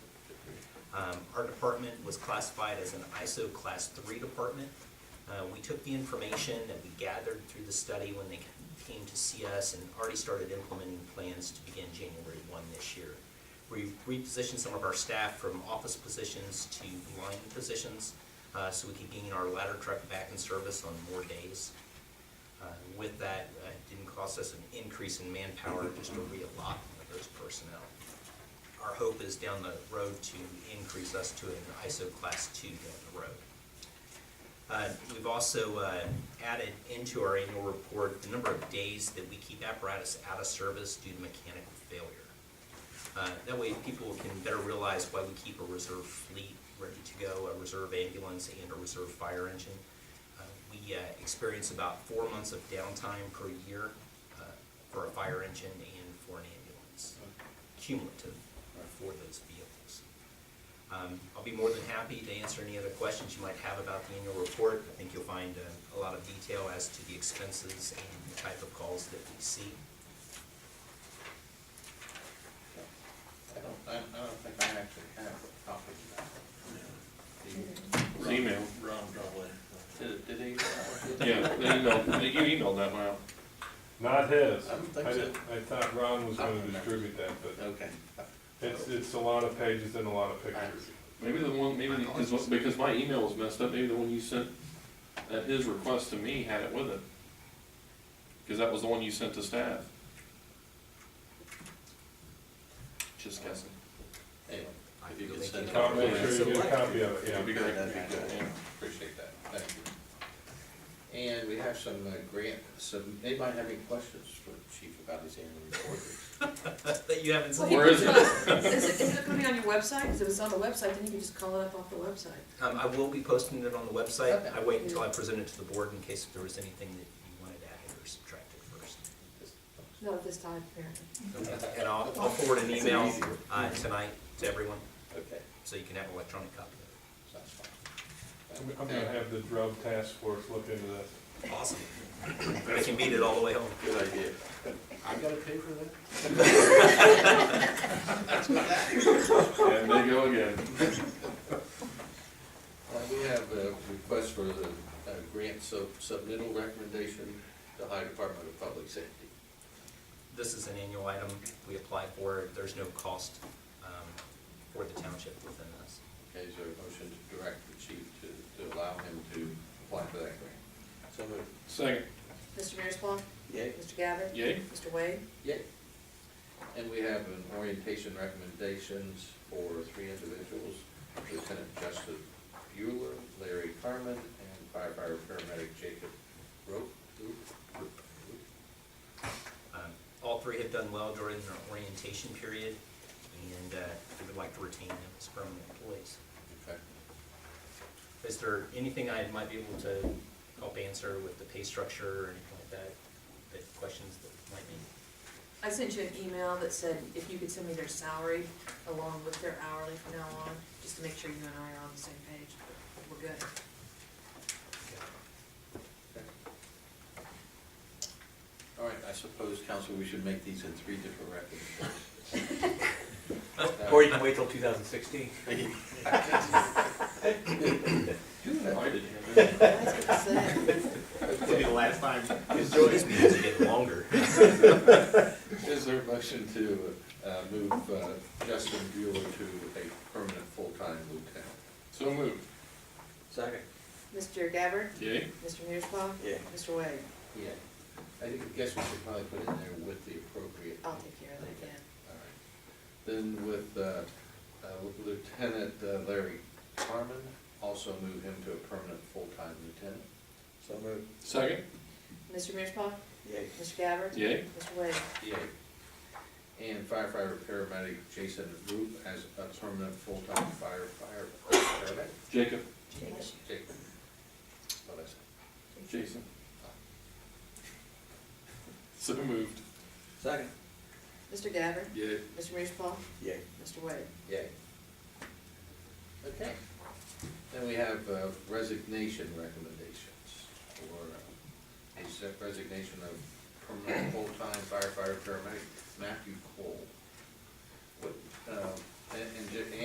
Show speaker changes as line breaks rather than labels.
Um, Our department was classified as an ISO Class 3 department. Uh, We took the information that we gathered through the study when they came to see us and already started implementing plans to begin January 1 this year. We repositioned some of our staff from office positions to line positions uh, so we could gain our ladder truck back in service on more days. Uh, With that, uh, it didn't cost us an increase in manpower, just a reallotment of those personnel. Our hope is down the road to increase us to an ISO class two down the road. Uh, We've also uh, added into our annual report the number of days that we keep apparatus out of service due to mechanical failure. Uh, That way, people can better realize why we keep a reserve fleet ready to go, a reserve ambulance and a reserve fire engine. Uh, We uh, experience about four months of downtime per year uh, for a fire engine and for an ambulance, cumulative for those vehicles. Um, I'll be more than happy to answer any other questions you might have about the annual report. I think you'll find uh, a lot of detail as to the expenses and the type of calls that we see.
I don't, I don't- I don't think I actually have a copy of that.
It's email.
Ron probably.
Did, did he? Yeah, they emailed, you emailed that one out.
Not his.
I don't think
I
so.
did- I thought Ron was
I don't
gonna
remember.
distribute that, but
Okay.
it's, it's a lot of pages and a lot of pictures.
Maybe the one, maybe, the- 'cause what- because my email was messed up, maybe the one you sent at his request to me had it with it. Because that was the one you sent to staff. Just guessing.
Anyway,
I
if you could
really
send it.
can't-
Tom, make sure
So
you get a
what-
copy of it,
It'd be
yeah.
great.
That'd be good.
Yeah.
Appreciate that, thank you. And we have some uh, grant, some, anybody have any questions for the Chief about his annual report?
That you haven't seen.
Where is it?
Is it, is it gonna be on your website? Because if it's on the website, then you can just call it up off the website.
Um, I will be posting it on the website.
Okay.
I wait until I present it to the board in case there was anything that you wanted added or subtracted first.
Not at this time, apparently.
And I'll, I'll forward an email,
easier.
uh, tonight to everyone,
Okay,
so you can have an electronic copy of
sounds fine.
I'm I'm gonna have the drug task force look into this.
it. Awesome. They can beat it all the way home.
Good idea. I gotta pay for that?
And they go again.
Uh, we have a request for the uh, grant sub, submittal recommendation to High Department of Public Safety.
This is an annual item we apply for. There's no cost um, for the township within this.
Okay, is there a motion to direct the chief to, to allow him to apply for that grant? So moved.
Second,
Mr. Mearsclaw?
Yay.
Mr. Gabbard?
yay?
Mr. Wade?
Yay. And we have an orientation recommendations for three individuals, Lieutenant Justin Bueller, Larry Carmen, and firefighter paramedic Jacob Rope.
Um, All three have done well during their orientation period, and uh, we would like to retain them as permanent employees.
Okay.
Is there anything I might be able to help answer with the pay structure or anything like that, that questions that might be?
I sent you an email that said if you could send me their salary along with their hourly from now on, just to make sure you and I are on the same page. We're good.
All right, I suppose, council, we should make these in three different recommendations.
Or you can wait till 2016.
I didn't have it.
That's what I said.
It'll be the last time.
These meetings are getting longer.
Is there a motion to uh, move uh, Justin Bueller to a permanent full-time lieutenant?
So moved.
Second.
Mr. Gabbard?
Yay?
Mr. Mearsclaw?
Yeah.
Mr. Wade?
Yeah. I think, I guess we should probably put it in there with the appropriate.
I'll take care of that, yeah.
All right. Then with uh, uh, Lieutenant uh, Larry Carmen, also move him to a permanent full-time lieutenant.
So moved.
Second,
Mr. Mearsclaw?
Yay.
Mr. Gabbard?
yay?
Mr. Wade?
Yay. And firefighter paramedic Jason Roop as a permanent full-time firefighter paramedic.
Jacob,
Jake. What did I say?
Jason. So moved.
Second.
Mr. Gabbard?
Yay.
Mr. Mearsclaw?
Yay.
Mr. Wade?
Yay. Okay. Then we have uh, resignation recommendations for uh, a se- resignation of permanent full-time firefighter paramedic Matthew Cole. What, uh, and, and ju-